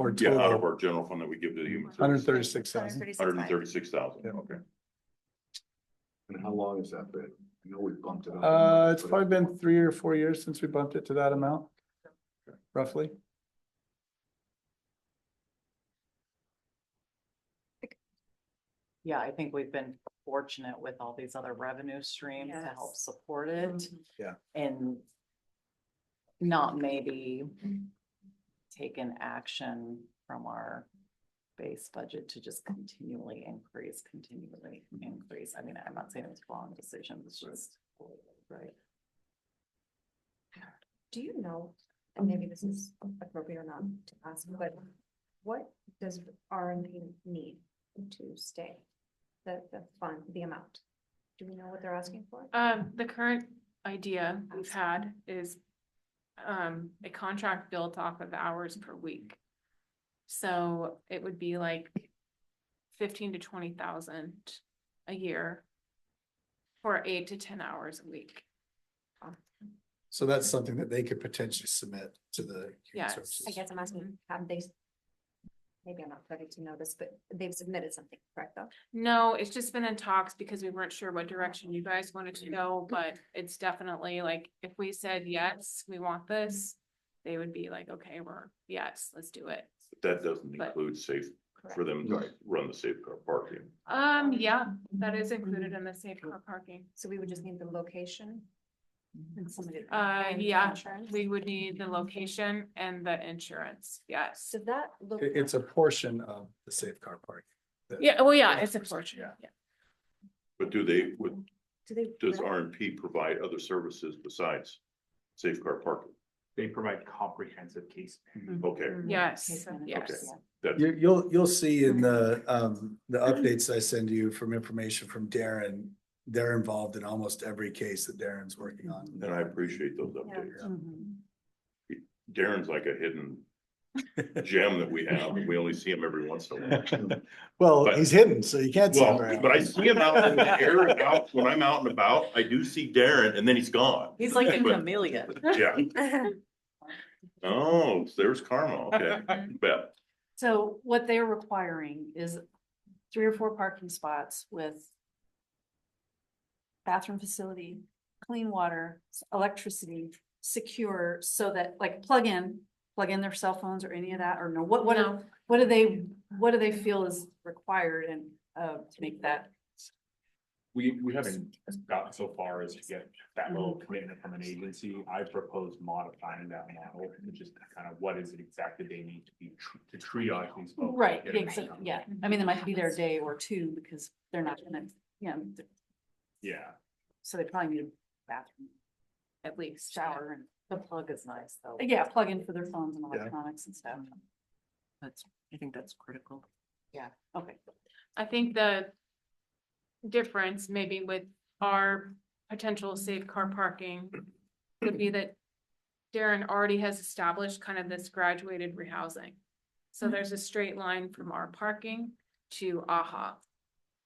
our Yeah, out of total, our general fund that we give to the human. hundred and thirty-six thousand. Hundred and thirty-six thousand, okay. And how long has that been? I know we bumped it up. Uh, it's probably been three or four years since we bumped it to that amount, roughly. Yeah, I think we've been fortunate with all these other revenue streams to help Yes. support it Mm-hmm. Yeah. and not maybe Mm-hmm. taken action from our base budget to just continually increase, continually increase. I mean, I'm not saying it was wrong decision, it's just. Right. Do you know, and maybe this is appropriate or not to ask, but what does RMP need to stay? The, the fund, the amount? Do we know what they're asking for? Um, the current idea we've had is um, a contract built off of hours per week. So it would be like fifteen to twenty thousand a year for eight to ten hours a week. Um, So that's something that they could potentially submit to the. Human Yes. Services. I guess I'm asking, mm-hmm. have they, maybe I'm not ready to know this, but they've submitted something, correct though? No, it's just been in talks because we weren't sure what direction you guys wanted to go, but it's definitely like, if we said, yes, we want this, they would be like, okay, we're, yes, let's do it. That doesn't But- include safe, for them Right. to run the safe car parking. Um, yeah, that is included in the safe car parking. So we would just need the location? and somebody- Uh, and yeah, insurance? We would need the location and the insurance, yes. So that. look- It- it's a portion of the safe car park. Yeah, well, yeah, it's a portion, Yeah. yeah. But do they, would, Do they? does rent? R and P provide other services besides safe car parking? They provide comprehensive case. Mm-hmm. Okay, Yes, yes. yes. that's, You, you'll, you'll see in the, um, the updates I send you from information from Darren, they're involved in almost every case that Darren's working on. and I appreciate those updates. Mm-hmm. Darren's like a hidden gem that we have, and we only see him every once in a while. Well, But- he's hidden, so you can't. see him Well, very but I often. see him out in the air and out, when I'm out and about, I do see Darren and then he's gone. He's like a But- chameleon. Yeah, oh, there's karma, okay, bet. So what they're requiring is three or four parking spots with bathroom facility, clean water, s- electricity, secure, so that like plug in, plug in their cell phones or any of that, or no, what, what, do- No. what do they, what do they feel is required and, uh, to make that? We, we haven't gotten so far as to get that little commitment from an agency. I propose modifying that model to just kind of what is it exactly they need to be, tr- to triage these folks. Right, Get yeah, them exact- done. yeah, I mean, they might be there a day or two because they're not gonna, you know, th- Yeah, so they probably need a bathroom, At least. shower and. The plug is nice though. Yeah, plug in for their phones and Yeah. electronics and stuff. That's, I think that's critical. Okay. I think the difference maybe with our potential safe car parking would be that Darren already has established kind of this graduated rehousing. So there's a straight line from our parking to AHA.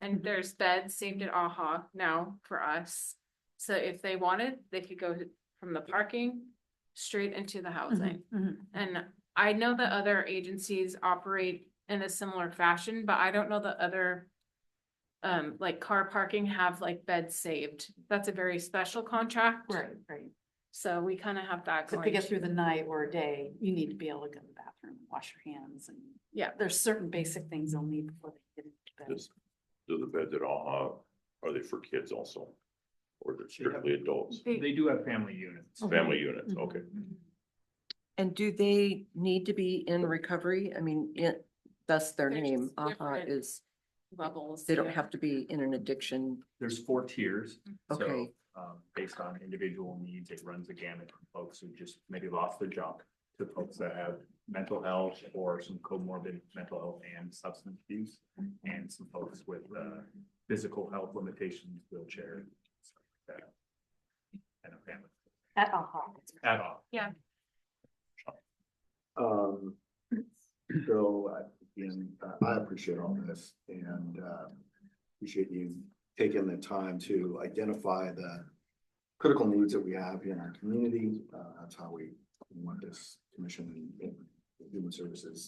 And there's beds saved at AHA now for us. So if they wanted, they could go from the parking straight into the housing. And I know that other agencies operate in a similar fashion, but I don't know that other. Um, like car parking have like beds saved. That's a very special contract. Right, right. So we kind of have that So if you going. get through the night or a day, you need to be able to go to the bathroom, and wash your hands and. Yeah. There's certain basic things they'll need before they get into bed. Does, do the beds at all, uh, are they for kids also? Or they're strictly adults, they do have family units. family units, okay. And do they need to be in recovery? I mean, it, that's their They're name, just AHA different. is, Bubbles. they don't yeah. have to be in an addiction. There's four tiers. so, Okay. Um, based on individual needs, it runs the gamut from folks who just maybe lost their job to folks that have mental health or some comorbid mental health and substance abuse. And some folks with, uh, physical health limitations, wheelchair. stuff like that, And a family, At AHA. at all. Um, so, uh, again, uh, I appreciate all this and, uh, appreciate you taking the time to identify the critical needs that we have in our community. Uh, that's how we want this commission and and human services